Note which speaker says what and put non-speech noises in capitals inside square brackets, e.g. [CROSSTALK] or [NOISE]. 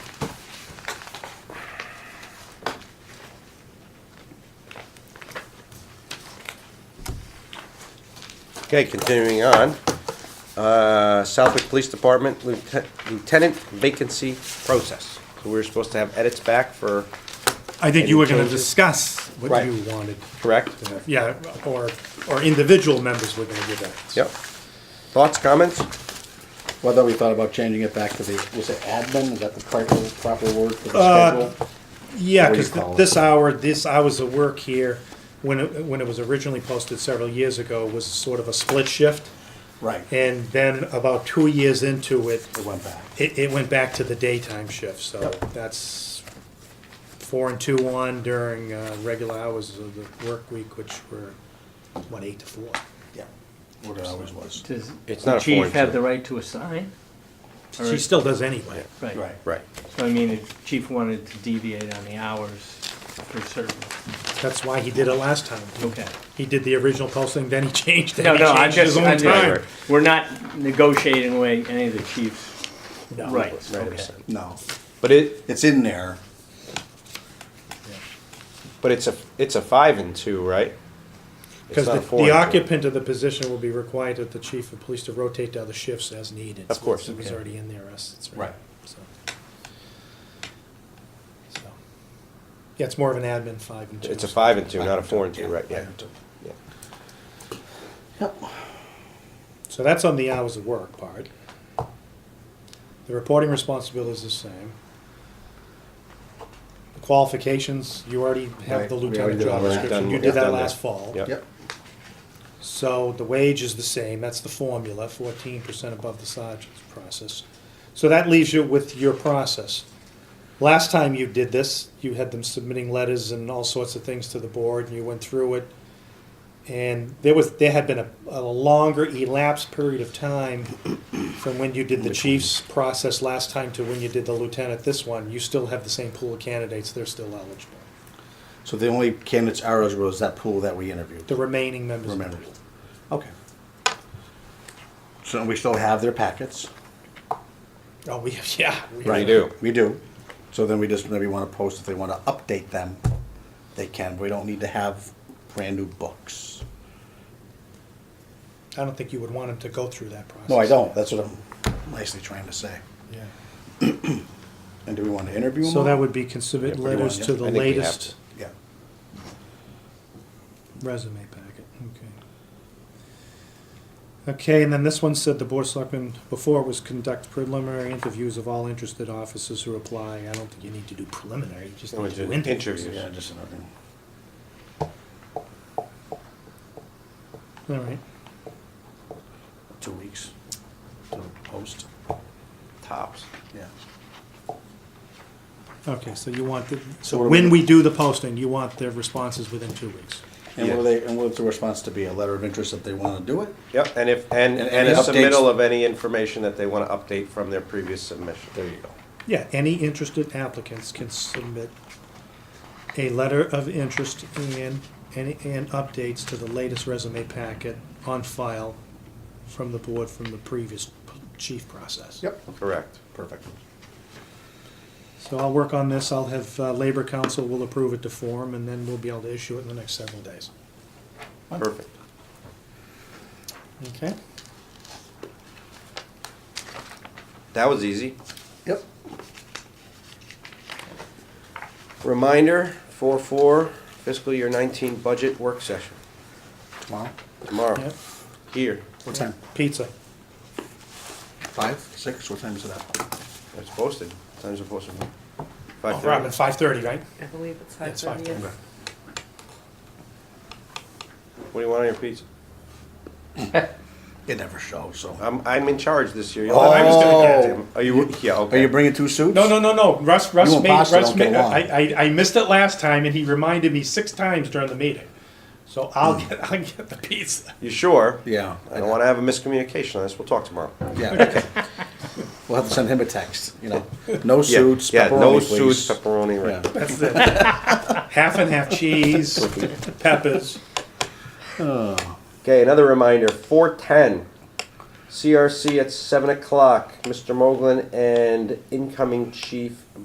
Speaker 1: Okay, continuing on. Uh, Southwick Police Department lieutenant- lieutenant vacancy process. So we were supposed to have edits back for,
Speaker 2: I think you were gonna
Speaker 1: Any changes?
Speaker 2: discuss what
Speaker 1: Right.
Speaker 2: you wanted.
Speaker 1: correct?
Speaker 2: Yeah, or, or individual members were gonna give that.
Speaker 1: Yep. Thoughts, comments?
Speaker 3: Well, I thought we thought about changing it back to the, was it admin, is that the proper, proper word for
Speaker 2: Uh,
Speaker 3: the schedule?
Speaker 2: Yeah,
Speaker 3: What do you
Speaker 2: because
Speaker 3: call it?
Speaker 2: this hour, this hours of work here, when it, when it was originally posted several years ago, was sort of a split shift.
Speaker 3: Right, it
Speaker 2: And then about two years into it,
Speaker 3: went back.
Speaker 2: it, it went back to the daytime shift, so that's four and two on during, uh, regular hours of the work week, which were, what, eight to four?
Speaker 3: Yeah. What it always was.
Speaker 4: Does
Speaker 1: It's not a
Speaker 4: the chief
Speaker 1: foreign
Speaker 4: have
Speaker 1: thing.
Speaker 4: the right to assign?
Speaker 2: She still does anyway.
Speaker 4: Right.
Speaker 3: Right.
Speaker 1: Right.
Speaker 4: So I mean, if chief wanted to deviate on the hours for certain,
Speaker 2: That's why he did Mm-hmm. it last time.
Speaker 4: okay.
Speaker 2: He did the original posting, then he [LAUGHS] changed it.
Speaker 4: No,
Speaker 2: He
Speaker 4: no, I'm
Speaker 2: changed his
Speaker 4: just,
Speaker 2: own
Speaker 4: I'm
Speaker 2: time.
Speaker 4: just, we're not negotiating away any of the chief's
Speaker 2: No.
Speaker 4: rights, okay.
Speaker 3: No,
Speaker 1: But it,
Speaker 3: it's in there.
Speaker 1: but it's a, it's a five and two, right? It's
Speaker 2: Because
Speaker 1: not
Speaker 2: the
Speaker 1: a four
Speaker 2: the
Speaker 1: and two.
Speaker 2: occupant of the position will be required at the chief of police to rotate to other shifts as needed.
Speaker 1: Of course,
Speaker 2: It was
Speaker 1: okay.
Speaker 2: already in there, us, it's
Speaker 3: Right.
Speaker 2: right. So, so, Yeah, it's more of an admin five and two.
Speaker 1: It's a five and two, not a four and two, right, yeah. Yeah.
Speaker 2: So that's on the hours of work part. The reporting responsibility is the same. The Qualifications, you already have
Speaker 3: Right,
Speaker 2: the
Speaker 3: we
Speaker 2: lieutenant
Speaker 3: already did
Speaker 2: job
Speaker 3: all that.
Speaker 2: description,
Speaker 1: Done-
Speaker 2: you
Speaker 1: yeah,
Speaker 2: did that
Speaker 1: done
Speaker 2: last
Speaker 1: that.
Speaker 2: fall.
Speaker 1: Yep.
Speaker 3: Yep,
Speaker 2: So the wage is the same, that's the formula, fourteen percent above the sergeant's process. So that leaves you with your process. Last time you did this, you had them submitting letters and all sorts of things to the board, and you went through it. And there was, there had been a, a longer elapsed period of time from when you did the chief's process last time to when you did the lieutenant this one. You still have the same pool of candidates, they're still eligible,
Speaker 3: so the only candidates ours was that pool that we interviewed,
Speaker 2: the remaining members. of the
Speaker 3: remember?
Speaker 2: pool.
Speaker 3: Okay. So we still have their packets.
Speaker 2: Oh, we, yeah. we-
Speaker 3: Right.
Speaker 1: do.
Speaker 3: We do. So then we just maybe wanna post, if they wanna update them, they can, we don't need to have brand new books.
Speaker 2: I don't think you would want him to go through that process.
Speaker 3: No, I don't, that's what I'm nicely trying to say.
Speaker 2: Yeah.
Speaker 3: And do we wanna interview them?
Speaker 2: So
Speaker 3: all?
Speaker 2: that would be can submit
Speaker 1: Yeah,
Speaker 3: pretty
Speaker 2: letters
Speaker 3: much,
Speaker 2: to
Speaker 3: yeah.
Speaker 1: I
Speaker 2: the
Speaker 1: think we have
Speaker 2: latest
Speaker 3: Yeah,
Speaker 2: resume packet, okay. Okay, and then this one said the board of selectmen before was conduct preliminary interviews of all interested officers who apply. I don't think you need to do preliminary, you just
Speaker 1: No,
Speaker 2: need
Speaker 1: it's
Speaker 2: to do
Speaker 1: an
Speaker 2: interviews.
Speaker 1: interview.
Speaker 3: yeah, just another.
Speaker 2: All right,
Speaker 3: two weeks to post.
Speaker 1: Tops.
Speaker 3: Yeah.
Speaker 2: okay, so you want the,
Speaker 3: So
Speaker 2: so
Speaker 3: what do
Speaker 2: when
Speaker 3: we-
Speaker 2: we do the posting, you want their responses within two weeks.
Speaker 3: And
Speaker 1: Yeah.
Speaker 3: what are they, and what's the response to be? A letter of interest if they want to do it?
Speaker 1: Yep, and if, and,
Speaker 3: And
Speaker 1: and a
Speaker 3: any updates?
Speaker 1: submittal of any information that they want to update from their previous submission. There you go.
Speaker 2: Yeah, any interested applicants can submit a letter of interest and, and, and updates to the latest resume packet on file from the board from the previous p- chief process.
Speaker 3: Yep.
Speaker 1: Correct. Perfect.
Speaker 2: So I'll work on this, I'll have, uh, Labor Council will approve it to form, and then we'll be able to issue it in the next several days.
Speaker 1: Perfect.
Speaker 2: Okay.
Speaker 1: That was easy.
Speaker 3: Yep.
Speaker 1: Reminder, four four fiscal year nineteen budget work session
Speaker 3: Tomorrow?
Speaker 1: tomorrow,
Speaker 2: Yeah,
Speaker 1: here.
Speaker 3: What time?
Speaker 2: pizza.
Speaker 3: Five, six? What time is it at?
Speaker 1: It's posted. Times are posted.
Speaker 2: Oh,
Speaker 1: Five
Speaker 2: Robin,
Speaker 1: thirty.
Speaker 2: five thirty, right?
Speaker 5: I believe it's five
Speaker 2: It's five
Speaker 5: thirty.
Speaker 2: thirty.
Speaker 1: What do you want on your pizza?
Speaker 3: It never shows, so.
Speaker 1: I'm, I'm in charge this year.
Speaker 3: Oh. I was gonna get it.
Speaker 1: Are you, yeah,
Speaker 3: Are you
Speaker 1: okay.
Speaker 3: bringing two suits?
Speaker 2: No, no, no, no. Russ, Russ
Speaker 3: You and
Speaker 2: made,
Speaker 3: Pasta
Speaker 2: Russ
Speaker 3: don't
Speaker 2: made,
Speaker 3: get along.
Speaker 2: I, I, I missed it last time and he reminded me six times during the meeting. So I'll
Speaker 3: Hmm.
Speaker 2: get, I'll get the pizza.
Speaker 1: You sure?
Speaker 3: Yeah.
Speaker 1: I don't want to have a miscommunication on this. We'll talk tomorrow.
Speaker 3: Yeah.
Speaker 1: [LAUGHS]
Speaker 3: Okay. We'll have to send him a text, you know. No
Speaker 1: Yeah,
Speaker 3: suits,
Speaker 1: Yeah, no
Speaker 3: pepperoni,
Speaker 1: suits,
Speaker 3: please.
Speaker 1: pepperoni, right.
Speaker 3: Yeah.
Speaker 2: That's it. [LAUGHS] half and half cheese,
Speaker 3: [LAUGHS]
Speaker 2: peppers.
Speaker 1: Okay, another reminder, four ten, CRC at seven o'clock, Mr. Moglen and incoming chief